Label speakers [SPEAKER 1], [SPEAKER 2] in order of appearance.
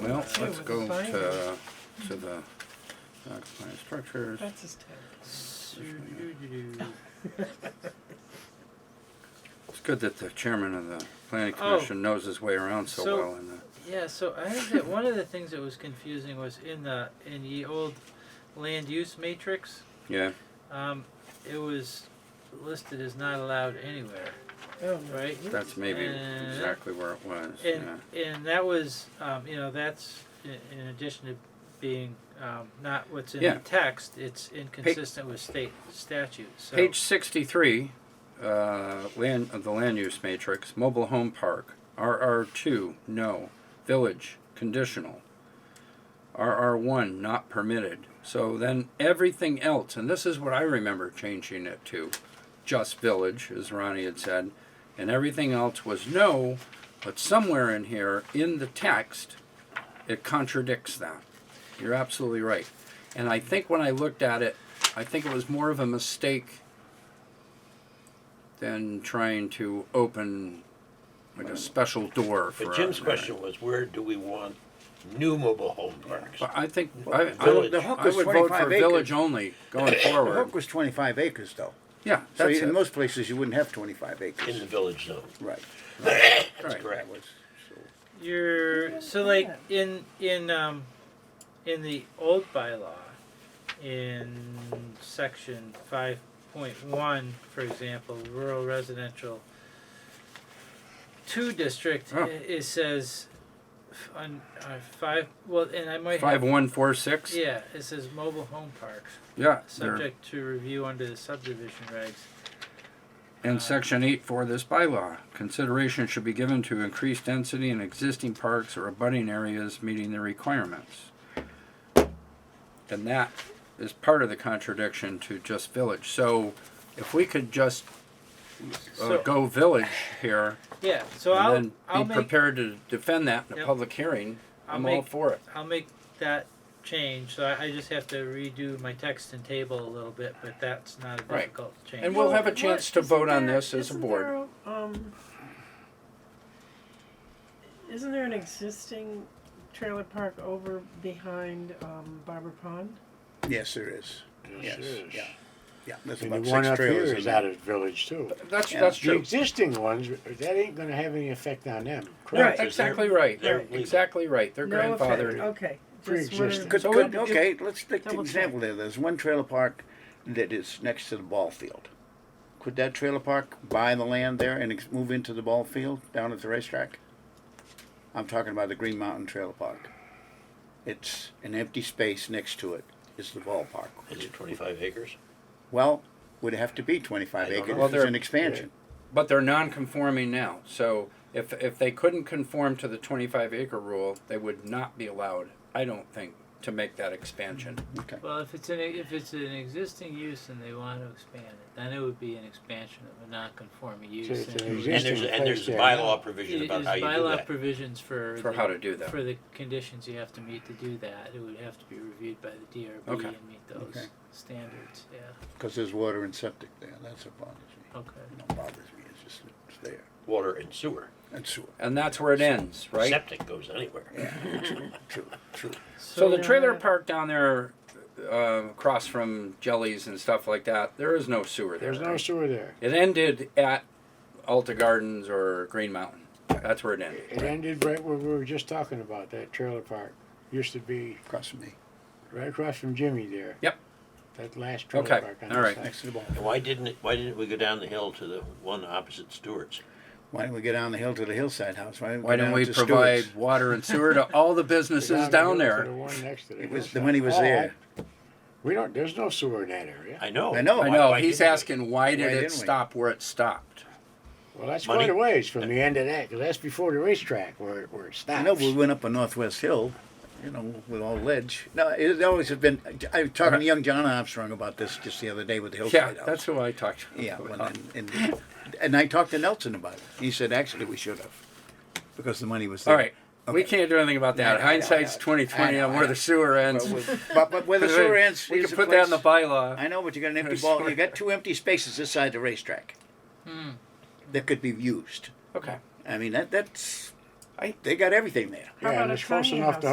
[SPEAKER 1] Well, let's
[SPEAKER 2] with
[SPEAKER 1] go
[SPEAKER 2] the
[SPEAKER 1] to, to the uh, compliant structures.
[SPEAKER 2] That's his tag.
[SPEAKER 1] It's good that the chairman of the planning
[SPEAKER 3] Oh.
[SPEAKER 1] commission knows his way around so
[SPEAKER 3] So-
[SPEAKER 1] well uh, in the.
[SPEAKER 3] Yeah, so I think that one of the things that was confusing was in the in the old land use matrix,
[SPEAKER 1] Yeah,
[SPEAKER 3] um, it was listed as not allowed anywhere,
[SPEAKER 2] Oh, no.
[SPEAKER 3] right?
[SPEAKER 1] that's maybe
[SPEAKER 3] Uh,
[SPEAKER 1] exactly where it was,
[SPEAKER 3] And
[SPEAKER 1] yeah.
[SPEAKER 3] and that was um, you know that's in, in addition to being um, not what's in
[SPEAKER 1] Yeah.
[SPEAKER 3] the text, it's inconsistent with state statute. So
[SPEAKER 1] Page sixty-three, uh, land, of the land use matrix, mobile home park, RR two, no, village, conditional. RR one, not permitted, so then everything else, and this is what I remember changing it to, just village, as Ronnie had said, and everything else was no, but somewhere in here, in the text, it contradicts that. You're absolutely right. And I think when I looked at it, I think it was more of a mistake than trying to open like a special door for.
[SPEAKER 4] But Jim's
[SPEAKER 1] our-
[SPEAKER 4] question was, where do we want new mobile home parks?
[SPEAKER 1] But I think I, I,
[SPEAKER 4] Village.
[SPEAKER 1] would,
[SPEAKER 5] The hook
[SPEAKER 1] I
[SPEAKER 5] was
[SPEAKER 1] would vote
[SPEAKER 5] 25
[SPEAKER 1] for
[SPEAKER 5] acres.
[SPEAKER 1] village only going
[SPEAKER 5] The hook
[SPEAKER 1] forward.
[SPEAKER 5] was 25 acres, though.
[SPEAKER 1] Yeah,
[SPEAKER 5] So
[SPEAKER 1] that's
[SPEAKER 5] in
[SPEAKER 1] it.
[SPEAKER 5] most places, you wouldn't have 25
[SPEAKER 4] In the
[SPEAKER 5] acres.
[SPEAKER 4] village zone,
[SPEAKER 5] Right.
[SPEAKER 4] that's
[SPEAKER 1] Right.
[SPEAKER 5] That
[SPEAKER 4] correct.
[SPEAKER 5] was- so-
[SPEAKER 3] You're so like in in um in the old bylaw in section five point one, for example, rural residential two district,
[SPEAKER 1] Oh.
[SPEAKER 3] i- it says f- on uh, five well, and I might
[SPEAKER 1] Five
[SPEAKER 3] have,
[SPEAKER 1] one four six.
[SPEAKER 3] yeah, it says mobile home parks
[SPEAKER 1] Yeah, there-
[SPEAKER 3] subject to review under the subdivision regs.
[SPEAKER 1] And section eight for this bylaw, consideration should be given to increased density in existing parks or abutting areas meeting the requirements. And that is part of the contradiction to just village, so if we could just uh,
[SPEAKER 3] So
[SPEAKER 1] go village here
[SPEAKER 3] yeah, so I'll
[SPEAKER 1] and
[SPEAKER 3] I'll
[SPEAKER 1] then be
[SPEAKER 3] make
[SPEAKER 1] prepared to defend that in a
[SPEAKER 3] Yep.
[SPEAKER 1] public hearing,
[SPEAKER 3] I'll
[SPEAKER 1] I'm all
[SPEAKER 3] make-
[SPEAKER 1] for it.
[SPEAKER 3] I'll make that change, so I, I just have to redo my text and table a little bit, but that's not a
[SPEAKER 1] Right.
[SPEAKER 3] difficult change.
[SPEAKER 1] And we'll have a
[SPEAKER 2] What-
[SPEAKER 1] chance to
[SPEAKER 2] isn't
[SPEAKER 1] vote on
[SPEAKER 2] there-
[SPEAKER 1] this as a
[SPEAKER 2] isn't
[SPEAKER 1] board.
[SPEAKER 2] there, um, Isn't there an existing trailer park over behind um, Barber Pond?
[SPEAKER 5] Yes, there is. Yes,
[SPEAKER 6] Yes, it is.
[SPEAKER 5] yeah. Yeah, there's
[SPEAKER 6] And the
[SPEAKER 5] about
[SPEAKER 6] one
[SPEAKER 5] six
[SPEAKER 6] up
[SPEAKER 5] trailers.
[SPEAKER 6] here
[SPEAKER 5] in
[SPEAKER 6] is
[SPEAKER 5] there.
[SPEAKER 6] out of village too.
[SPEAKER 1] That's,
[SPEAKER 5] Yeah.
[SPEAKER 1] that's
[SPEAKER 6] The
[SPEAKER 1] true.
[SPEAKER 6] existing ones, that ain't gonna have any effect on them.
[SPEAKER 2] Right.
[SPEAKER 1] That's exactly right,
[SPEAKER 4] they're
[SPEAKER 1] They're
[SPEAKER 4] legal.
[SPEAKER 1] exactly right, their
[SPEAKER 2] No effect.
[SPEAKER 1] grandfather.
[SPEAKER 2] Okay. Just wondering.
[SPEAKER 6] Pre-existing.
[SPEAKER 5] Good,
[SPEAKER 1] So
[SPEAKER 5] good,
[SPEAKER 1] it-
[SPEAKER 5] okay, let's take the
[SPEAKER 2] Double
[SPEAKER 5] example there. There's one trailer park that is next to the ball field. Could that trailer park buy the land there and ex- move into the ball field down at the racetrack? I'm talking about the Green Mountain Trailer Park. It's an empty space next to it is the ballpark.
[SPEAKER 4] Is it twenty-five acres?
[SPEAKER 5] Well, would it have to be twenty-five
[SPEAKER 4] I don't know.
[SPEAKER 5] acres,
[SPEAKER 1] Well,
[SPEAKER 5] if
[SPEAKER 1] they're-
[SPEAKER 5] it's an expansion.
[SPEAKER 1] But they're non-conforming now, so if, if they couldn't conform to the twenty-five acre rule, they would not be allowed, I don't think, to make that expansion.
[SPEAKER 5] Okay,
[SPEAKER 3] Well, if it's an if it's an existing use and they want to expand it, then it would be an expansion of a non-conforming use.
[SPEAKER 6] So it's
[SPEAKER 3] and
[SPEAKER 6] an
[SPEAKER 3] it would-
[SPEAKER 6] exist-
[SPEAKER 4] And there's, and there's a
[SPEAKER 6] Existing place, yeah.
[SPEAKER 4] bylaw provision
[SPEAKER 3] it
[SPEAKER 4] about
[SPEAKER 3] is
[SPEAKER 4] how you do
[SPEAKER 3] bylaw
[SPEAKER 4] that.
[SPEAKER 3] provisions for
[SPEAKER 1] For
[SPEAKER 3] the-
[SPEAKER 1] how to do that.
[SPEAKER 3] for the conditions you have to meet to do that. It would have to be reviewed by the DRB
[SPEAKER 1] Okay.
[SPEAKER 3] and meet those
[SPEAKER 5] Okay.
[SPEAKER 3] standards. Yeah.
[SPEAKER 5] because there's water and septic there, that's what bothers me.
[SPEAKER 3] Okay.
[SPEAKER 5] It don't bothers me, it's just, it's there,
[SPEAKER 4] Water and sewer,
[SPEAKER 5] and sewer,
[SPEAKER 1] And that's where it ends, right?
[SPEAKER 4] septic goes anywhere.
[SPEAKER 5] true, true.
[SPEAKER 1] So the
[SPEAKER 2] Yeah.
[SPEAKER 1] trailer park down there, uh, across from Jellies and stuff like that, there is no sewer there.
[SPEAKER 6] There's no
[SPEAKER 1] right?
[SPEAKER 6] sewer there.
[SPEAKER 1] It ended at Alta Gardens or Green Mountain, that's where it ended.
[SPEAKER 6] It ended right where we were just talking about, that trailer park. Used to be
[SPEAKER 5] Across from me,
[SPEAKER 6] right across from Jimmy there.
[SPEAKER 1] Yep.
[SPEAKER 6] That last trailer
[SPEAKER 1] Okay,
[SPEAKER 6] park on
[SPEAKER 1] all
[SPEAKER 6] the
[SPEAKER 1] right.
[SPEAKER 6] side.
[SPEAKER 5] next to the ball.
[SPEAKER 4] And why didn't, it- why didn't we go down the hill to the one opposite Stewart's?
[SPEAKER 5] Why don't we go down the hill to the hillside house? Why didn't we,
[SPEAKER 1] Why
[SPEAKER 5] go
[SPEAKER 1] don't
[SPEAKER 5] down
[SPEAKER 1] we
[SPEAKER 5] to
[SPEAKER 1] provide
[SPEAKER 5] Stewart's?
[SPEAKER 1] water and sewer to all the businesses down
[SPEAKER 6] the hill to
[SPEAKER 1] there?
[SPEAKER 6] The one next to the
[SPEAKER 5] It was
[SPEAKER 6] hillside.
[SPEAKER 5] the money was
[SPEAKER 6] Oh,
[SPEAKER 5] there.
[SPEAKER 6] I- We don't, there's no sewer in that area.
[SPEAKER 4] Oh, I know.
[SPEAKER 5] I know.
[SPEAKER 1] I
[SPEAKER 4] Why-
[SPEAKER 1] know,
[SPEAKER 4] why
[SPEAKER 1] he's
[SPEAKER 4] didn't we?
[SPEAKER 1] asking, why did it
[SPEAKER 5] didn't we?
[SPEAKER 1] stop where it stopped?
[SPEAKER 6] Well, that's
[SPEAKER 4] Money-
[SPEAKER 6] quite a ways from the end of that, 'cause that's before the racetrack where, it- where it
[SPEAKER 5] I know
[SPEAKER 6] stops.
[SPEAKER 5] we went up on Northwest Hill, you know, with all ledge. No, it always has been. I was talking to young John Armstrong about this just the other day with the
[SPEAKER 1] Yeah,
[SPEAKER 5] hillside house.
[SPEAKER 1] that's who I talked to.
[SPEAKER 5] yeah. When, and, and, and I talked to Nelson about it. He said actually we should have because the money was there.
[SPEAKER 1] All right, we
[SPEAKER 5] Okay.
[SPEAKER 1] can't do anything about that.
[SPEAKER 5] I know, I know,
[SPEAKER 1] Hindsight's
[SPEAKER 5] I know.
[SPEAKER 1] twenty
[SPEAKER 5] I
[SPEAKER 1] twenty
[SPEAKER 5] know,
[SPEAKER 1] on
[SPEAKER 5] I
[SPEAKER 1] where
[SPEAKER 5] know.
[SPEAKER 1] the sewer ends.
[SPEAKER 5] But, with- but, but where the sewer ends,
[SPEAKER 1] We
[SPEAKER 5] is
[SPEAKER 1] can
[SPEAKER 5] the
[SPEAKER 1] put that in the
[SPEAKER 5] place-
[SPEAKER 1] bylaw.
[SPEAKER 5] I know, but you got an empty
[SPEAKER 1] There's
[SPEAKER 5] ball.
[SPEAKER 1] sewer.
[SPEAKER 5] You got two empty spaces this side of the racetrack that could be used.
[SPEAKER 1] Okay.
[SPEAKER 5] I mean that that's.
[SPEAKER 1] I-
[SPEAKER 5] they got everything there.
[SPEAKER 2] How
[SPEAKER 6] Yeah,
[SPEAKER 2] about
[SPEAKER 6] and
[SPEAKER 2] a
[SPEAKER 6] it's close
[SPEAKER 2] tiny
[SPEAKER 6] enough to
[SPEAKER 2] house?